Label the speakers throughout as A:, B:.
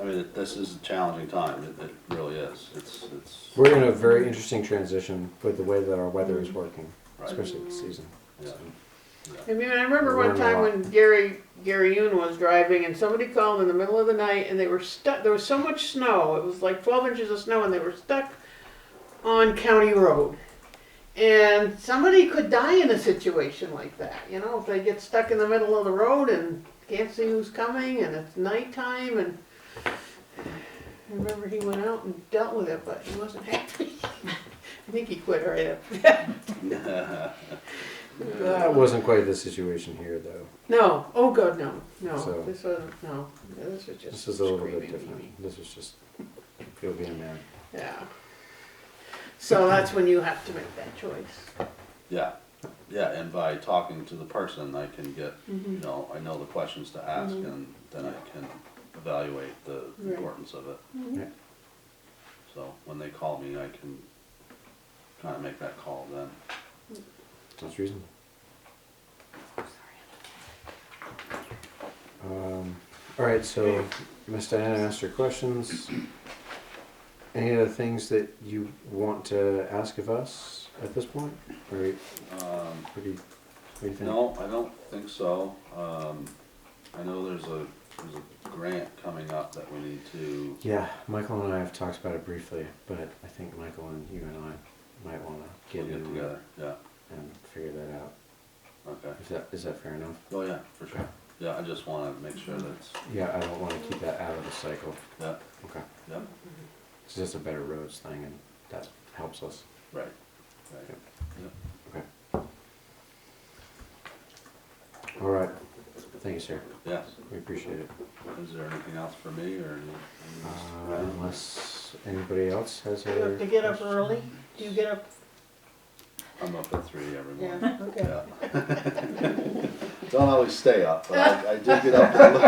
A: I mean, it- this is a challenging time, it, it really is, it's, it's,
B: We're in a very interesting transition with the way that our weather is working,
A: Right.
B: especially this season.
A: yeah.
C: I mean, I remember one
B: Learn a
C: time
B: lot.
C: when Gary, Gary Yoon was driving and somebody called in the middle of the night and they were stuck, there was so much snow, it was like twelve inches of snow and they were stuck on County Road. And somebody could die in a situation like that, you know, if they get stuck in the middle of the road and can't see who's coming and it's nighttime and I remember he went out and dealt with it, but he wasn't happy. I think he quit right after that.
B: That wasn't quite the situation here, though.
C: No. Oh God, no, no.
B: So-
C: this wasn't. No, Yeah, this was just.
B: This is a little bit
C: screaming meaning.
B: different. This is just, you'll be a man.
C: Yeah. So that's when you have to make that choice.
A: Yeah, yeah, and by talking to the person, I can get, you know, I know the questions to ask and then I can evaluate the
C: Right.
A: importance of it.
B: Yeah.
A: So when they call me, I can kind of make that call then.
B: That's reasonable. Um, all right, so Miss Diana asked her questions. Any other things that you want to ask of us at this point? Or, or
A: Um,
B: do you, what do you think?
A: No, I don't think so. Um, I know there's a, there's a grant coming up that we need to,
B: Yeah, Michael and I have talked about it briefly, but I think Michael and you and I might want to
A: we'll
B: get
A: get
B: in
A: together,
B: there
A: yeah,
B: and figure that out.
A: okay.
B: Is that is that fair enough?
A: Oh, yeah, for sure. Yeah, I just wanna make sure that's,
B: Yeah, I don't want to keep that out of the cycle.
A: yeah,
B: Okay,
A: yeah,
B: it's just a better roads thing, and that helps us.
A: right, right, yeah.
B: Okay. All right. Thank you, sir.
A: Yes,
B: We appreciate it.
A: is there anything else for me or? any- any-
B: Uh, unless anybody else has
C: You have
B: other
C: to get up
B: questions?
C: early. Do you get up?
A: I'm up at three every morning.
C: Yeah. Okay.
A: Yeah. Don't always stay up, but I, I do get up. and look-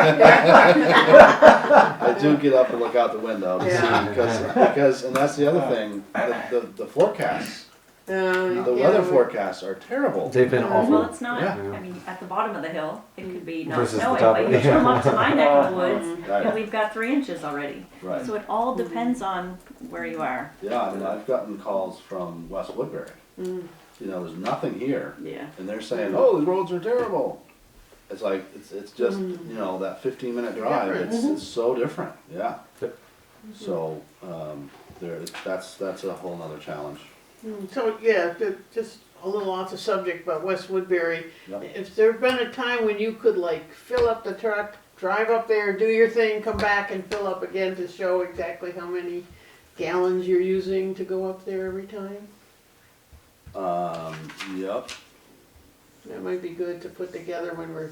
A: I do get up and look out the window to see,
C: Yeah.
A: because, because, and that's the other thing, the, the, the forecasts,
C: Uh,
A: the
C: yeah,
A: weather
C: we-
A: forecasts are terrible.
B: They've been
D: Well,
B: awful.
D: it's not,
A: Yeah.
D: I mean, at the bottom of the hill, it could be not
B: Versus the
D: snowing,
B: top
D: but
B: of
D: you
B: it.
D: come up to my neck of the woods, and
A: Right,
D: we've got three inches already.
A: right.
D: So it all depends on where you are.
A: Yeah, I mean, I've gotten calls from West Woodbury.
C: Mm.
A: You know, there's nothing here,
D: Yeah.
A: and they're saying, "Oh, the roads are terrible." It's like it's it's just
C: Mm-hmm.
A: you know that 15 minute drive. It's, it's so different. Yeah.
B: Yep.
C: Mm-hmm.
A: So um, there, that's that's a whole nother challenge.
C: Mm, So yeah, ju- just a little off the subject, but West Woodbury.
A: Yep.
C: If there'd been a time when you could like fill up the truck, drive up there, do your thing, come back and fill up again to show exactly how many gallons you're using to go up there every time,
A: Um, yep.
C: that might be good to put together when we're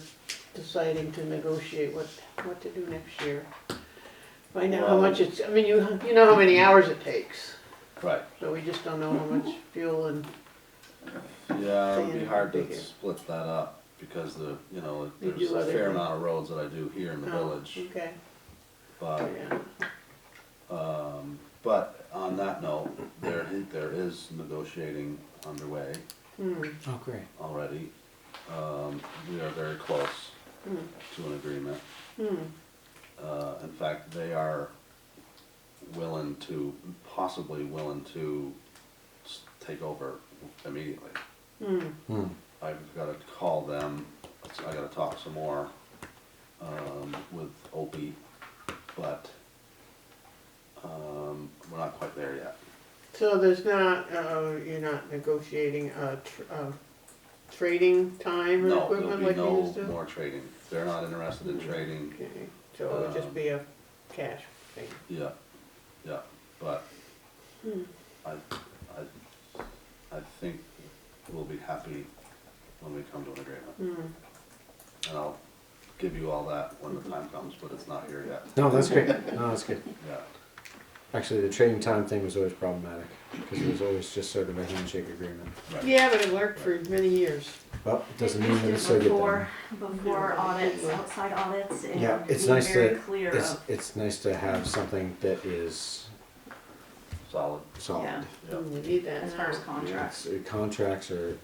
C: deciding to negotiate what, what to do next year. Find out how
A: Well-
C: much it's, I mean, you, you know how many hours it takes,
A: Right.
C: so we just don't know how much fuel and,
A: Yeah, it'd be
C: Saying
A: hard to
C: bigger.
A: split that up because the you know
C: You
A: there's
C: do
A: a
C: other
A: fair
C: things.
A: amount of roads that I do here in the
C: oh,
A: village,
C: okay,
A: but.
C: yeah.
A: Um, but on that note, there, i- there is negotiating underway
C: Hmm.
B: Oh, great.
A: already. Um, we are very close
C: Hmm.
A: to an agreement.
C: Hmm.
A: Uh, in fact, they are willing to, possibly willing to s- take over immediately.
C: Hmm.
B: Hmm.
A: I've gotta call them, I gotta talk some more, um, with Opie, but, um, we're not quite there yet.
C: So there's not, uh, you're not negotiating, uh, tr- uh, trading time and
A: No, there'll
C: equipment
A: be
C: like you used
A: no
C: to?
A: more trading. They're not interested in trading,
C: Okay, so it would just
A: Um,
C: be a cash thing.
A: yeah, yeah, but
C: Hmm.
A: I, I, I think we'll be happy when we come to an agreement.
C: Hmm.
A: And I'll give you all that when the time comes, but it's not here yet,
B: No, that's great. No, that's good.
A: yeah.
B: Actually, the trading time thing was always problematic because it was always just sort of a handshake agreement.
A: right.
C: Yeah, but it worked for many years.
B: Well, it doesn't mean
D: Just
B: that
D: do
B: it's so good. Then.
D: Before, before audits, outside audits, and
B: Yeah, it's
D: be
B: nice
D: very
B: to,
D: clear
B: it's,
D: of,
B: it's nice to have something that is
A: Solid,
B: solid.
D: Yeah.
A: yeah.
C: Hmm, You need that.
D: as
C: now.
D: far as contracts.
B: It's- Contracts are